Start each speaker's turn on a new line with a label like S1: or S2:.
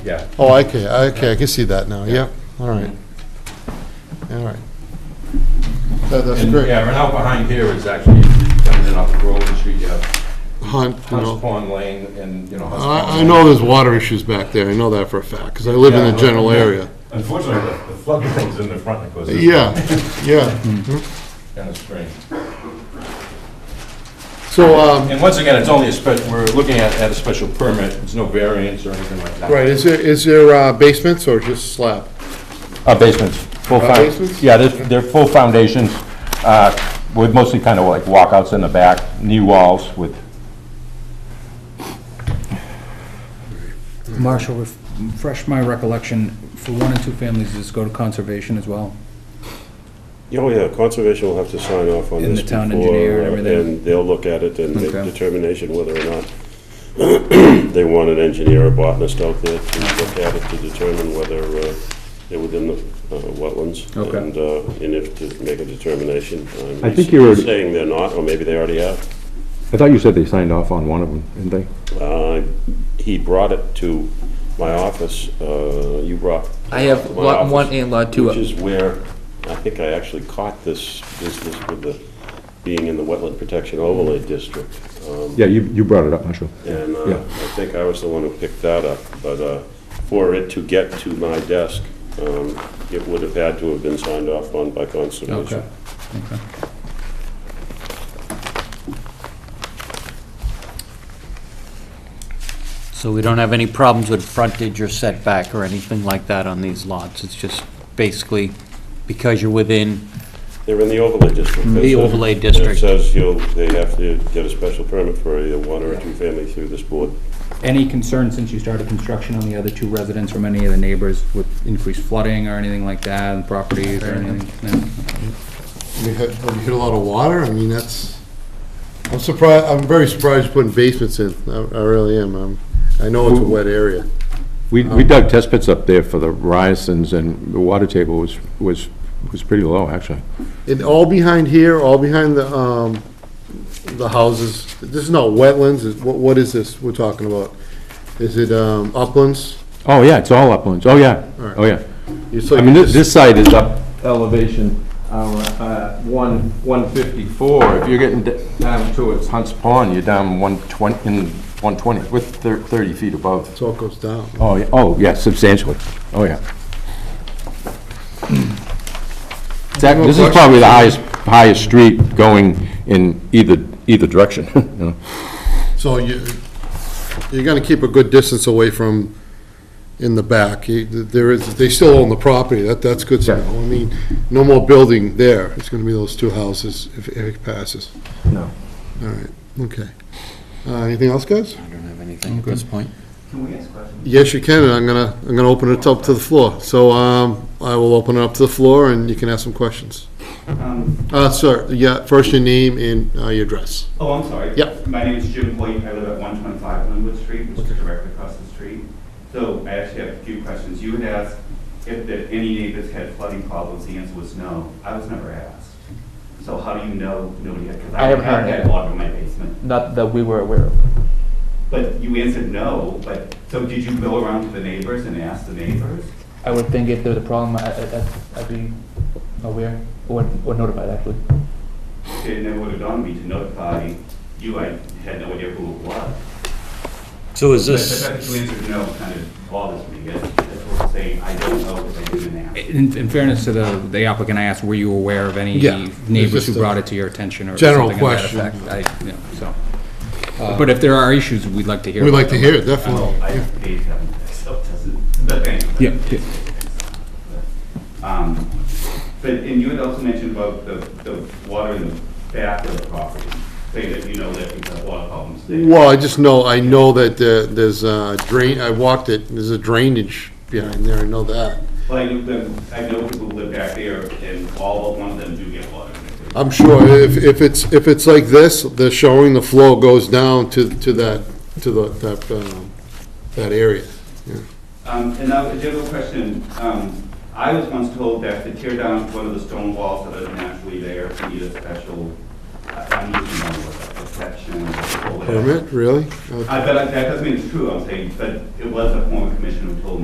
S1: Yeah.
S2: Oh, okay, okay, I can see that now, yeah, all right. All right. That- That's
S1: And,
S2: great.
S1: yeah, right out behind here is actually, coming in off of Groveland Street, you have
S2: Hunt, you know.
S1: Hunts Pond Lane and, you know. Hunts Pond
S2: I, I
S1: Lane.
S2: know there's water issues back there, I know that for a fact, because I live in
S1: Yeah,
S2: the general
S1: but-
S2: area.
S1: Unfortunately, the- the flood comes in the front and goes. in.
S2: Yeah, yeah.
S1: Kind of strange.
S2: So, um,
S1: And once again, it's only a special, we're looking at, at a special permit, there's no variance or anything like that.
S2: right, is there, is there uh, basements or just slab?
S1: Uh, basements, full
S2: Uh,
S1: found,
S2: basements?
S1: yeah, they're, they're full foundations, uh, with mostly kind of like walkouts in the back, new walls with,
S3: Marshall, ref- refresh my recollection, for one and two families, does this go to conservation as well?
S4: Oh, yeah, conservation will have to sign off on
S3: And
S4: this
S3: the town
S4: before,
S3: engineer and
S4: uh,
S3: everything.
S4: And they'll look at it and make
S3: Okay.
S4: determination whether or not they want an engineer or botanist out there to look at it to determine whether uh, they're within the uh, wetlands.
S3: Okay.
S4: And, uh, and if to make a determination. um,
S5: I think you were-
S4: Saying they're not, or maybe they already have.
S5: I thought you said they signed off on one of them, didn't they?
S4: Uh, He brought it to my office, uh, you brought.
S6: I have
S4: my
S6: lot one
S4: office,
S6: and
S7: Uh,
S6: lot two.
S4: Which is where, I think I actually caught this business with the, being in the Wetland Protection Overlay District. Um,
S5: Yeah, you, you brought it up, Marshall.
S4: And uh,
S5: Yeah.
S4: I think I was the one who picked that up, but uh, for it to get to my desk, um, it would have had to have been signed off on by Conservation.
S3: Okay.
S7: So we don't have any problems with frontage or setback or anything like that on these lots? It's just basically because you're within,
S4: They're in the overlay district.
S7: The
S4: It says-
S7: overlay district.
S4: It says you'll, they have to get a special permit for a one or a two-family through this board.
S3: Any concern since you started construction on the other two residents from any of the neighbors with increased flooding or anything like that, and properties or anything? No?
S2: I mean, have have you hit a lot of water? I mean, that's, I'm surprised, I'm very surprised you're putting basements in, I I really am. Um, I know it's a wet area.
S5: We, we dug test pits up there for the ryersons, and the water table was, was, was pretty low, actually.
S2: And all behind here, all behind the, um, the houses, this is not wetlands, is, what, what is this we're talking about? Is it, um, uplands?
S5: Oh, yeah, it's all uplands, oh, yeah,
S2: Alright.
S5: oh, yeah.
S2: You- so
S5: I mean,
S2: you
S5: this,
S2: just-
S5: this side is up elevation, uh, uh, one, one fifty-four. If you're getting d- down towards Hunts Pond, you're down one twenty, in one twenty, with thir- thirty feet above.
S2: It's all goes down.
S5: Oh, yeah, oh, yeah, substantially, oh, yeah. Zach, this is probably the highest, highest street going in either, either direction, you know.
S2: So you, you're gonna keep a good distance away from in the back. You- There is, they still own the property, that, that's good
S5: Yeah.
S2: to know. I mean, no more building there, it's gonna be those two houses if if it passes.
S5: No.
S2: All right, okay. Uh, anything else, guys?
S7: I don't have anything at this point.
S2: Yes, you can, and I'm gonna, I'm gonna open it up to the floor. So, um, I will open it up to the floor and you can ask some questions.
S8: Um,
S2: Uh, sir, yeah, first your name and, uh, your address.
S8: Oh, I'm sorry.
S2: Yep.
S8: My name is Jim Hoyt. I live at 125 Linwood Street, which is directly across the street. So I actually have a few questions. You had asked if the- any neighbors had flooding problems. The answer was no. I was never asked. So how do you know nobody had? Because
S9: I haven't heard
S8: had
S9: that.
S8: water in my basement.
S9: Not that we were aware of.
S8: But you answered no, but, so did you go around to the neighbors and ask the neighbors?
S9: I would think if there was a problem, I, I- I'd, I'd be aware or, or notified actually.
S8: It never would have dawned on me to notify you. I had no idea who it was.
S7: So is
S8: But The
S7: this,
S8: fact that you answered no kind of bothers me. That's that's what I'm saying. I don't know if I didn't ask.
S3: In in fairness to the the applicant, I asked, were you aware of any
S2: Yeah,
S3: neighbors
S2: it's just
S3: who
S2: a
S3: brought it to your attention or
S2: general
S3: something of that
S2: question.
S3: effect? I- you know, so. But if there are issues, we'd like to hear.
S2: We'd
S3: about
S2: like to
S3: them.
S2: hear it, definitely.
S8: Well, I paid them, so it doesn't, but anyway.
S3: Yeah, yeah.
S8: Um, But, and you had also mentioned about the, the water in the back of the property, say that you know that people have water problems there.
S2: Well, I just know, I know that there- there's a drain, I walked it, there's a drainage behind there, I know that.
S8: Like, the- I know people who live back there and all, but one of them do get water. in their-
S2: I'm sure if, if it's, if it's like this, they're showing the flow goes down to, to that, to the, that, um, that area. Yeah.
S8: Um, and now, a general question, um, I was once told that to tear down one of the stone walls that are naturally there, uh, you need a special, I- I'm using one word, protection or whatever.
S2: Permit, really? Okay.
S8: I, but that doesn't mean it's true, I'm saying, but it was a former commissioner who told me